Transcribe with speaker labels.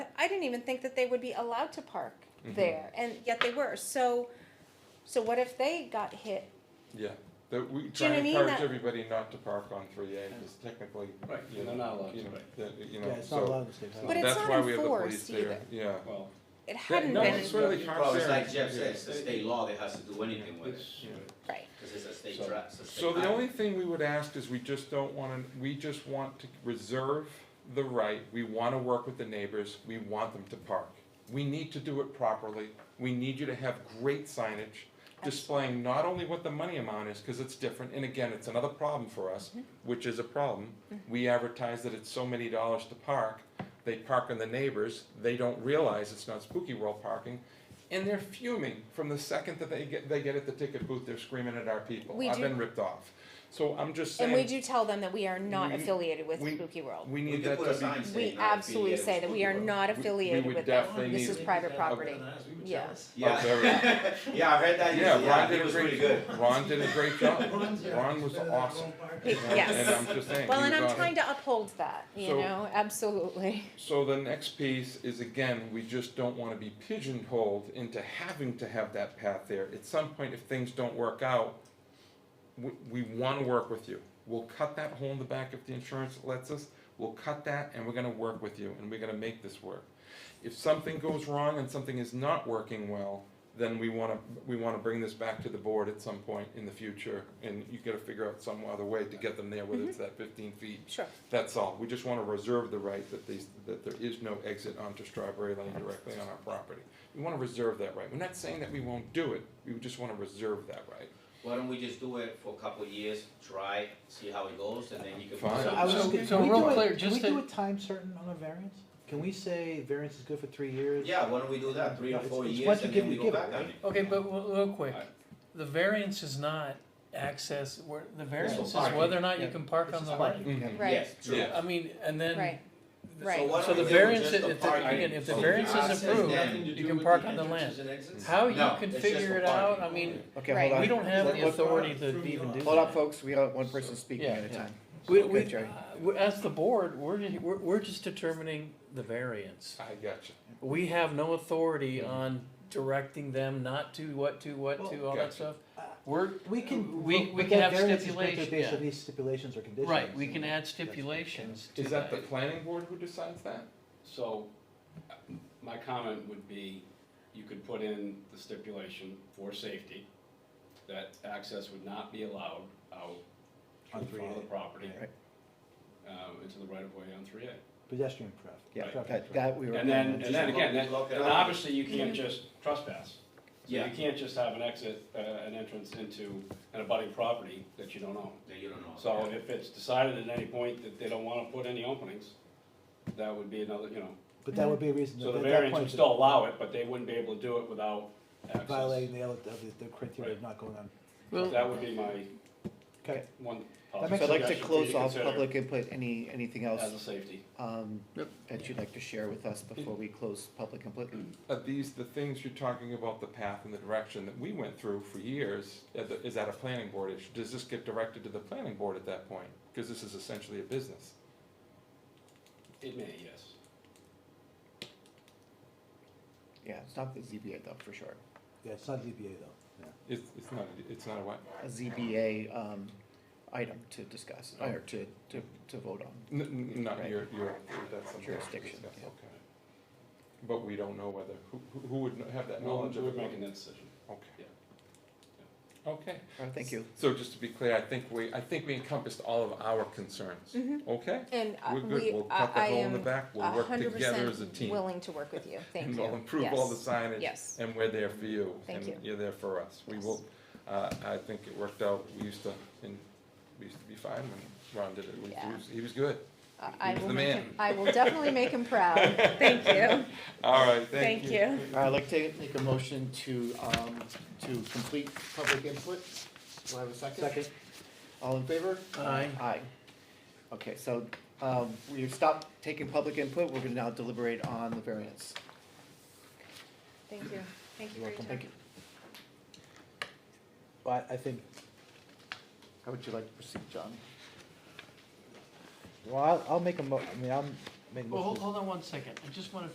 Speaker 1: I didn't even think that they would be allowed to park
Speaker 2: Mm-hmm.
Speaker 1: there, and yet they were. So, so what if they got hit?
Speaker 2: Yeah, that we
Speaker 1: Do
Speaker 2: try
Speaker 1: you know what I
Speaker 2: and
Speaker 1: mean?
Speaker 2: encourage
Speaker 1: That-
Speaker 2: everybody not to park on three A, because technically,
Speaker 3: Right,
Speaker 2: you
Speaker 3: they're not
Speaker 2: know,
Speaker 3: allowed
Speaker 2: you
Speaker 3: to,
Speaker 2: know,
Speaker 3: right.
Speaker 2: that, you
Speaker 4: Yeah,
Speaker 2: know,
Speaker 4: it's not
Speaker 2: so.
Speaker 4: allowed in state
Speaker 1: But
Speaker 4: highway.
Speaker 1: it's
Speaker 2: That's
Speaker 1: not
Speaker 2: why we have the police
Speaker 1: enforced
Speaker 2: there,
Speaker 1: either.
Speaker 2: yeah.
Speaker 3: Well,
Speaker 1: It hadn't
Speaker 2: no,
Speaker 1: been
Speaker 2: it's where they
Speaker 5: Well,
Speaker 2: park
Speaker 5: it's
Speaker 2: there.
Speaker 5: like Jeff said, it's a
Speaker 2: Yeah.
Speaker 5: state law that has to do anything with it,
Speaker 3: it's,
Speaker 2: Yeah.
Speaker 1: right.
Speaker 5: because it's a state
Speaker 3: So-
Speaker 5: tra- it's a state
Speaker 2: So the
Speaker 5: highway.
Speaker 2: only thing we would ask is we just don't wanna, we just want to reserve the right, we wanna work with the neighbors, we want them to park. We need to do it properly, we need you to have great signage displaying not only what the money amount is, cause it's different, and again, it's another problem for us, which is a problem.
Speaker 1: Mm-hmm.
Speaker 2: We advertise that it's so many dollars to park, they park on the neighbors, they don't realize it's not spooky world parking, and they're fuming from the second that they get, they get at the ticket booth, they're screaming at our people,
Speaker 1: We
Speaker 2: I've
Speaker 1: do-
Speaker 2: been ripped off. So I'm just
Speaker 1: And we
Speaker 2: saying,
Speaker 1: do tell them that we are not
Speaker 2: We-
Speaker 1: affiliated with
Speaker 2: we-
Speaker 1: Spooky World.
Speaker 2: we
Speaker 5: We
Speaker 2: need
Speaker 5: could
Speaker 2: that
Speaker 5: put a
Speaker 2: to
Speaker 5: sign
Speaker 2: be,
Speaker 1: We
Speaker 5: saying not
Speaker 1: absolutely
Speaker 5: affiliated
Speaker 1: say that
Speaker 5: with
Speaker 1: we are
Speaker 5: Spooky World.
Speaker 1: not
Speaker 2: We- we
Speaker 1: affiliated
Speaker 2: would
Speaker 1: with them.
Speaker 2: definitely
Speaker 1: This is
Speaker 2: need-
Speaker 1: private property. Yeah.
Speaker 2: Oh,
Speaker 5: Yeah, yeah, I heard that,
Speaker 2: yeah, Ron
Speaker 5: yeah,
Speaker 2: did
Speaker 5: it
Speaker 2: a
Speaker 5: was pretty
Speaker 2: great,
Speaker 5: good.
Speaker 2: Ron did a great job,
Speaker 4: Ron's, yeah,
Speaker 2: Ron
Speaker 4: he's
Speaker 2: was
Speaker 4: better than
Speaker 2: awesome.
Speaker 4: Ron Parker.
Speaker 1: He-
Speaker 2: And-
Speaker 1: yes.
Speaker 2: And I'm just saying,
Speaker 1: Well,
Speaker 2: he
Speaker 1: and
Speaker 2: was
Speaker 1: I'm
Speaker 2: on it.
Speaker 1: trying to uphold that, you
Speaker 2: So-
Speaker 1: know, absolutely.
Speaker 2: So the next piece is again, we just don't wanna be pigeonholed into having to have that path there. At some point, if things don't work out, we, we wanna work with you. We'll cut that hole in the back if the insurance lets us, we'll cut that and we're gonna work with you and we're gonna make this work. If something goes wrong and something is not working well, then we wanna, we wanna bring this back to the board at some point in the future. And you gotta figure out some other way to get them there, whether it's that fifteen feet
Speaker 1: Sure.
Speaker 2: that's all, we just wanna reserve the right that these, that there is no exit onto Strawberry Lane directly on our property. We wanna reserve that right, we're not saying that we won't do it, we just wanna reserve that right.
Speaker 5: Why don't we just do it for a couple of years, try, see how it goes, and then you can. put
Speaker 2: Fine.
Speaker 5: something
Speaker 4: I was
Speaker 5: out.
Speaker 4: just
Speaker 3: So-
Speaker 4: gonna-
Speaker 3: so
Speaker 4: can we
Speaker 3: real
Speaker 4: do a-
Speaker 3: clear,
Speaker 4: Can we
Speaker 3: just
Speaker 4: do
Speaker 3: to-
Speaker 4: a time certain on a variance? Can we say variance is good for three years?
Speaker 5: Yeah, why don't we do that, three or
Speaker 4: It's-
Speaker 5: four
Speaker 4: it's
Speaker 5: years,
Speaker 4: what you
Speaker 5: and
Speaker 4: give,
Speaker 5: then we
Speaker 4: you
Speaker 5: go
Speaker 4: give it,
Speaker 5: back on
Speaker 4: right?
Speaker 5: it.
Speaker 6: Okay, but w- real quick,
Speaker 5: Alright.
Speaker 6: the variance is not access, where, the variance is
Speaker 5: parking,
Speaker 6: whether or not you
Speaker 4: yeah.
Speaker 6: can park
Speaker 4: It's
Speaker 6: on
Speaker 4: just
Speaker 6: the
Speaker 4: like-
Speaker 6: lane.
Speaker 2: Mhm.
Speaker 1: Right.
Speaker 5: Yes, true.
Speaker 2: Yeah.
Speaker 5: So
Speaker 6: I mean, and then,
Speaker 1: Right, right.
Speaker 5: why
Speaker 6: so
Speaker 5: don't
Speaker 6: the
Speaker 5: we do
Speaker 6: variance,
Speaker 5: just
Speaker 6: is-
Speaker 5: the
Speaker 6: if, the-
Speaker 5: parking?
Speaker 6: again, if the
Speaker 2: So
Speaker 6: variance
Speaker 5: access
Speaker 6: is approved,
Speaker 5: then
Speaker 6: you can park on the land. How you
Speaker 5: No, it's just
Speaker 6: configure
Speaker 5: for
Speaker 6: it out, I
Speaker 5: parking.
Speaker 6: mean,
Speaker 7: Okay,
Speaker 1: Right.
Speaker 7: hold
Speaker 6: we
Speaker 7: on.
Speaker 6: don't have the
Speaker 7: Let-
Speaker 6: authority to even do
Speaker 7: Hold
Speaker 6: that.
Speaker 7: up, folks, we don't, one person speaking
Speaker 6: Yeah.
Speaker 7: at a time.
Speaker 6: We,
Speaker 7: Okay,
Speaker 6: we,
Speaker 7: Jerry.
Speaker 6: uh, we- as the board, we're, ju- we're, we're just determining the variance.
Speaker 2: I gotcha,
Speaker 6: We have no authority on directing them not to, what to, what to, all
Speaker 2: Gotcha.
Speaker 6: that stuff. We're,
Speaker 4: We can.
Speaker 6: We-
Speaker 4: but
Speaker 6: we can
Speaker 4: that
Speaker 6: have
Speaker 4: variance is granted
Speaker 6: stipulation,
Speaker 4: Based
Speaker 6: yeah.
Speaker 4: on these stipulations or conditions.
Speaker 6: right, we can add
Speaker 4: That's what-
Speaker 6: stipulations to
Speaker 2: is that the
Speaker 6: that.
Speaker 2: planning board who decides that?
Speaker 3: so, uh, my comment would be, you could put in the stipulation for safety, that access would not be allowed out
Speaker 4: On
Speaker 3: in front of the
Speaker 4: 3A,
Speaker 3: property,
Speaker 4: yeah.
Speaker 7: Right.
Speaker 3: um, into the right of way on three A.
Speaker 4: Pedestrian pref.
Speaker 7: Yeah,
Speaker 4: preference,
Speaker 7: that,
Speaker 4: right.
Speaker 7: that we were.
Speaker 3: And then,
Speaker 7: that's-
Speaker 3: and then
Speaker 5: Just
Speaker 3: again, that-
Speaker 5: lock- lock it
Speaker 3: and
Speaker 5: up.
Speaker 3: obviously you can't just trespass. So
Speaker 5: Yeah.
Speaker 3: you can't just have an exit, uh, an entrance into an abutting property that you don't own.
Speaker 5: Then you don't know.
Speaker 3: So if it's decided at any point that they don't wanna put any openings, that would be another, you know,
Speaker 4: But that would be a reason.
Speaker 3: so
Speaker 4: that-
Speaker 3: the
Speaker 4: at that
Speaker 3: variance
Speaker 4: point
Speaker 3: would
Speaker 4: to
Speaker 3: still allow it, but they wouldn't be able to do it without access.
Speaker 4: Violating the, ele- of the- the criteria of not going on.
Speaker 3: That would be my
Speaker 4: Okay.
Speaker 3: one possible
Speaker 4: That makes
Speaker 7: So I'd like
Speaker 3: suggestion
Speaker 7: to
Speaker 3: for you
Speaker 7: close
Speaker 3: to
Speaker 7: off
Speaker 3: consider
Speaker 7: public input, any, anything else,
Speaker 3: as a safety.
Speaker 7: um, that you'd like to share with us before we close public input?
Speaker 2: Are these the things you're talking about, the path and the direction that we went through for years, uh, the- is that a planning board issue? Does this get directed to the planning board at that point? Cause this is essentially a business.
Speaker 3: It may, yes.
Speaker 7: Yeah, it's not the ZBA though, for sure.
Speaker 4: Yeah, it's not ZBA though. Yeah.
Speaker 2: It's, it's not, a- it's not a what?
Speaker 7: A ZBA, um, item to discuss, or to, to, to vote on.
Speaker 2: N- n- Not
Speaker 7: Right.
Speaker 2: your, your, that's something. we
Speaker 7: Jurisdiction,
Speaker 2: discuss,
Speaker 7: yeah.
Speaker 2: Okay. But we don't know whether, who, who- who would have that
Speaker 3: We'll,
Speaker 2: knowledge of
Speaker 3: we're
Speaker 2: it?
Speaker 3: making that decision.
Speaker 2: Okay. Okay.
Speaker 7: All right, thank you.
Speaker 2: So just to be clear, I think we, I think we encompassed all of our concerns,
Speaker 1: Mhm.
Speaker 2: okay?
Speaker 1: And uh,
Speaker 2: We're
Speaker 1: we,
Speaker 2: good, we'll
Speaker 1: I
Speaker 2: cut the
Speaker 1: I
Speaker 2: hole in the
Speaker 1: am
Speaker 2: back,
Speaker 1: a
Speaker 2: we'll work
Speaker 1: hundred
Speaker 2: together as a
Speaker 1: percent
Speaker 2: team.
Speaker 1: willing to work with you. Thank
Speaker 2: And
Speaker 1: you.
Speaker 2: we'll improve all the
Speaker 1: Yes.
Speaker 2: signage.
Speaker 1: Yes.
Speaker 2: And we're there for you.
Speaker 1: Thank you.
Speaker 2: And you're there for us. We
Speaker 1: Yes.
Speaker 2: will, uh, I think it worked out, we used to, and we used to be fine when Ron did it. We- he
Speaker 1: Yeah.
Speaker 2: was- He was good.
Speaker 1: I- I
Speaker 2: He was
Speaker 1: will
Speaker 2: the
Speaker 1: make
Speaker 2: man.
Speaker 1: him- I will definitely make him proud. Thank you.
Speaker 2: All right, thank you.
Speaker 1: Thank you.
Speaker 7: All right, I'd like to make a motion to, um, to complete public input. Do I have a second?
Speaker 4: Second.
Speaker 7: All in favor?
Speaker 6: Aye.
Speaker 7: Aye. Okay, so, um, we've stopped taking public input, we're gonna now deliberate on the variance.
Speaker 1: Thank you. Thank you
Speaker 7: You're
Speaker 1: for your
Speaker 7: welcome,
Speaker 1: time.
Speaker 7: thank you.
Speaker 4: But I think
Speaker 7: How would you like to proceed, John?
Speaker 4: Well, I'll, I'll make a mo, I mean, I'll make a motion.
Speaker 6: Well, hold, hold on one second, I just wanna